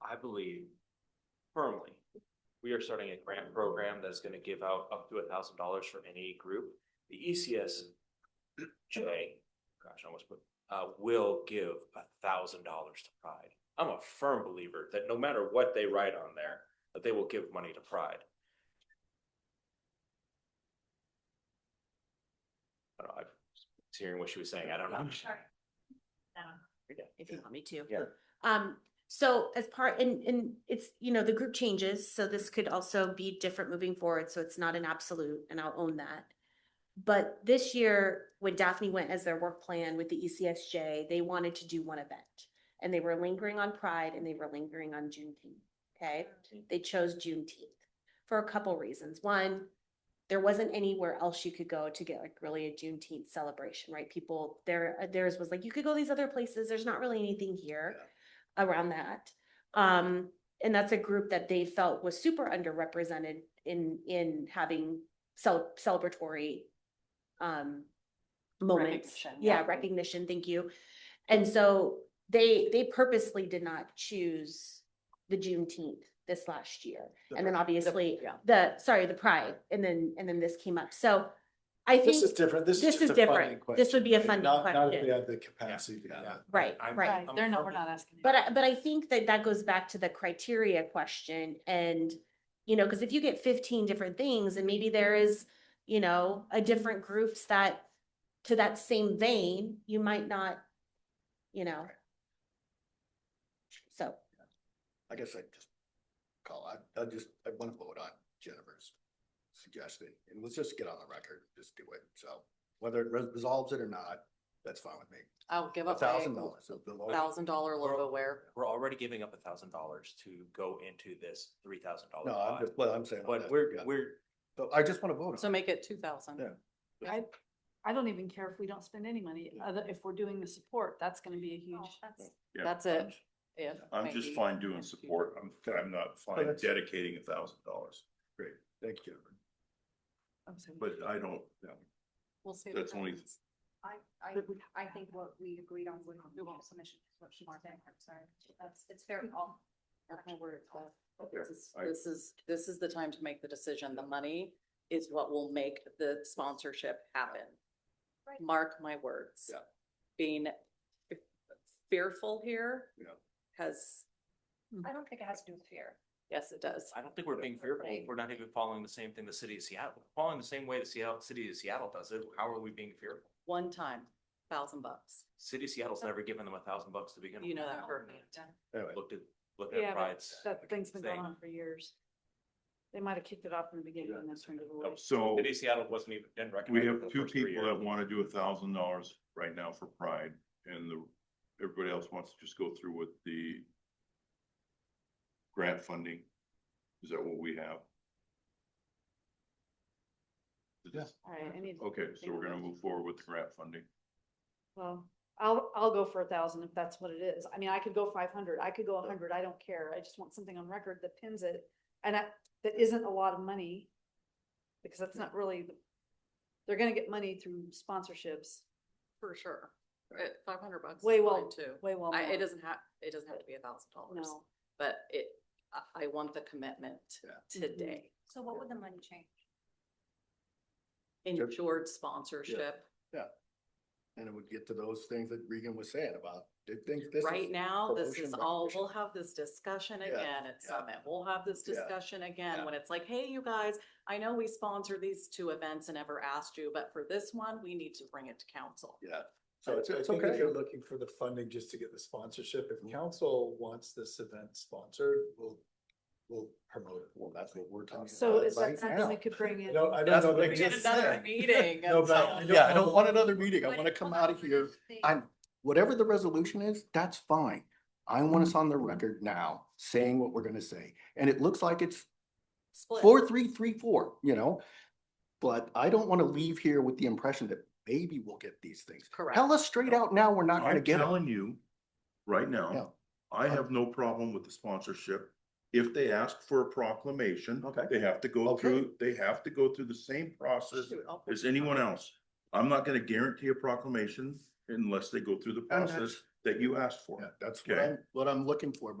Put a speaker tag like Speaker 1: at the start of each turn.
Speaker 1: I believe firmly, we are starting a grant program that's gonna give out up to a thousand dollars for any group. The E ECSJ, gosh, I almost put, uh, will give a thousand dollars to Pride. I'm a firm believer that no matter what they write on there, that they will give money to Pride. I don't know, I was hearing what she was saying, I don't know.
Speaker 2: if you want me to.
Speaker 1: Yeah.
Speaker 2: Um, so as part, and, and it's, you know, the group changes, so this could also be different moving forward, so it's not an absolute, and I'll own that. But this year, when Daphne went as their work plan with the E ECSJ, they wanted to do one event. And they were lingering on Pride and they were lingering on Juneteenth, okay? They chose Juneteenth for a couple reasons. One, there wasn't anywhere else you could go to get like really a Juneteenth celebration, right? People, there, uh, theirs was like, you could go these other places. There's not really anything here around that. Um, and that's a group that they felt was super underrepresented in, in having cel- celebratory um, moments.
Speaker 3: Recognition,
Speaker 2: Yeah,
Speaker 3: yeah.
Speaker 2: recognition, thank you. And so they, they purposely did not choose the Juneteenth this last year. And then obviously,
Speaker 3: yeah.
Speaker 2: the, sorry, the pride, and then, and then this came up. So I think.
Speaker 4: This is different. This is
Speaker 2: This is
Speaker 4: just a funding
Speaker 2: different. This
Speaker 4: question.
Speaker 2: would be a
Speaker 4: Like,
Speaker 2: funding
Speaker 4: Not, not if
Speaker 2: question.
Speaker 4: they have the capacity to
Speaker 1: Yeah.
Speaker 4: have it.
Speaker 2: Right,
Speaker 1: I'm-
Speaker 2: right.
Speaker 1: I'm
Speaker 3: They're not, we're
Speaker 1: firmly-
Speaker 3: not asking.
Speaker 2: But I, but I think that that goes back to the criteria question and, you know, because if you get fifteen different things and maybe there is, you know, a different groups that, to that same vein, you might not, you know. So,
Speaker 5: I guess I just call, I, I just, I want to vote on Jennifer's suggestion, and let's just get on the record, just do it, so. Whether it res- resolves it or not, that's fine with me.
Speaker 3: I'll give
Speaker 5: A
Speaker 3: up
Speaker 5: thousand dollars. so the low-
Speaker 3: Thousand dollar logo wear.
Speaker 1: We're already giving up a thousand dollars to go into this three thousand dollar
Speaker 5: No, I'm
Speaker 1: pot.
Speaker 5: just, well, I'm saying.
Speaker 1: But
Speaker 5: that's-
Speaker 1: we're,
Speaker 5: yeah.
Speaker 1: we're,
Speaker 5: So I just want to vote on it.
Speaker 3: So make it two thousand.
Speaker 5: Yeah.
Speaker 6: I, I don't even care if we don't spend any money, other, if we're doing the support, that's gonna be a
Speaker 7: Oh,
Speaker 6: huge.
Speaker 8: Yeah.
Speaker 3: That's it. Yeah.
Speaker 8: I'm just
Speaker 3: maybe.
Speaker 8: fine doing support. I'm, I'm not fine
Speaker 5: that's-
Speaker 8: dedicating a thousand dollars,
Speaker 5: Great, thank you, Jennifer.
Speaker 6: I'm sorry.
Speaker 8: but I don't, yeah,
Speaker 3: We'll see.
Speaker 8: that's only,
Speaker 7: I, I, I think what we agreed on with the submission is what she's saying, I'm sorry, that's, it's fair, all,
Speaker 3: This is-
Speaker 8: I-
Speaker 3: this is, this is the time to make the decision. The money is what will make the sponsorship happen.
Speaker 7: Right.
Speaker 3: Mark my words.
Speaker 5: Yeah.
Speaker 3: Being fearful here.
Speaker 5: Yeah.
Speaker 3: Has,
Speaker 7: I don't think it has to do with fear.
Speaker 3: yes, it does.
Speaker 1: I don't think we're being fearful. We're not even following the same thing the city of Seattle, We're following the same way the Seattle, city of Seattle does it. How are we being fearful?
Speaker 3: One time, thousand bucks.
Speaker 1: City of Seattle's never given them a thousand bucks to begin with.
Speaker 3: You know that
Speaker 7: No.
Speaker 3: hurt me.
Speaker 5: Anyway,
Speaker 1: Looked at, looked
Speaker 6: Yeah,
Speaker 1: at
Speaker 6: but
Speaker 1: Pride's.
Speaker 6: That thing's been going
Speaker 1: thing.
Speaker 6: on for years. They might have kicked it off in the beginning and then turned it away.
Speaker 8: so
Speaker 1: City of Seattle wasn't even, didn't recognize.
Speaker 8: we
Speaker 1: it for
Speaker 8: have
Speaker 1: the
Speaker 8: two
Speaker 1: first three
Speaker 8: people
Speaker 1: years.
Speaker 8: that want to do a thousand dollars right now for Pride and the, everybody else wants to just go through with the grant funding. Is that what we have? Is this-
Speaker 6: All right, I need. to
Speaker 8: Okay, so
Speaker 6: think
Speaker 8: we're gonna
Speaker 6: about it.
Speaker 8: move forward with the grant funding.
Speaker 6: Well, I'll, I'll go for a thousand if that's what it is. I mean, I could go five hundred, I could go a hundred, I don't care. I just want something on record that pins it. And that, that isn't a lot of money. Because that's not really, the- they're gonna get money through sponsorships
Speaker 3: For sure. Five hundred bucks. is
Speaker 6: Way
Speaker 3: fine,
Speaker 6: well-
Speaker 3: Too.
Speaker 6: way well.
Speaker 3: I,
Speaker 6: more.
Speaker 3: it doesn't have, it doesn't have to be a thousand dollars,
Speaker 6: Oh, No.
Speaker 3: but it, I, I want the commitment
Speaker 5: Yeah.
Speaker 3: today.
Speaker 7: So what would the money change?
Speaker 3: Ensured sponsorship.
Speaker 5: And it would get to those things that Regan was saying about, they think this is.
Speaker 3: Right now, this is
Speaker 5: promotion,
Speaker 3: all,
Speaker 5: recognition.
Speaker 3: we'll have this discussion
Speaker 5: Yeah,
Speaker 3: again at
Speaker 5: yeah.
Speaker 3: Summit. We'll have this
Speaker 5: Yeah,
Speaker 3: discussion again
Speaker 5: yeah.
Speaker 3: when it's like, hey, you guys, I know we sponsor these two events and never asked you, but for this one, we need to bring it to council.
Speaker 5: Yeah, so
Speaker 4: So I
Speaker 5: it's, it's
Speaker 4: think that
Speaker 5: okay. Mm-hmm.
Speaker 4: you're looking for the funding just to get the sponsorship. If council wants this event sponsored, we'll, we'll promote it.
Speaker 5: Well, that's what we're talking about.
Speaker 6: So is
Speaker 5: right
Speaker 6: that something
Speaker 5: now.
Speaker 6: we could bring
Speaker 4: I
Speaker 6: in?
Speaker 4: don't, I don't
Speaker 5: That's
Speaker 4: know.
Speaker 5: what
Speaker 4: that
Speaker 5: we
Speaker 3: We need
Speaker 5: did
Speaker 4: exists.
Speaker 3: another
Speaker 5: said-
Speaker 3: meeting.
Speaker 4: No,
Speaker 3: and
Speaker 4: but
Speaker 3: so-
Speaker 4: I don't
Speaker 5: Yeah, I don't
Speaker 4: know.
Speaker 5: want another meeting. I
Speaker 7: What
Speaker 5: want to
Speaker 7: if-
Speaker 5: come
Speaker 7: hold
Speaker 5: out
Speaker 7: on,
Speaker 5: of
Speaker 7: what
Speaker 5: here.
Speaker 7: if they-
Speaker 5: I'm, whatever the resolution is, that's fine. I want us on the record now saying what we're gonna say. And it looks like it's
Speaker 3: Split.
Speaker 5: four, three, three, four, you know? But I don't want to leave here with the impression that maybe we'll get these things.
Speaker 3: Correct.
Speaker 5: Tell us straight out now, we're not gonna
Speaker 8: I'm
Speaker 5: get it.
Speaker 8: telling you, right now, I have no problem with the sponsorship. If they ask for a proclamation,
Speaker 5: Okay.
Speaker 8: they have to go
Speaker 5: Okay.
Speaker 8: through, they have to go through the same process
Speaker 3: Shoot, I'll put
Speaker 8: as
Speaker 3: it
Speaker 8: anyone
Speaker 3: on.
Speaker 8: else. I'm not gonna guarantee a proclamation unless they go through the
Speaker 5: And
Speaker 8: process
Speaker 5: that's-
Speaker 8: that you asked for.
Speaker 5: Yeah, That's what
Speaker 8: Okay.
Speaker 5: I'm, what I'm looking for,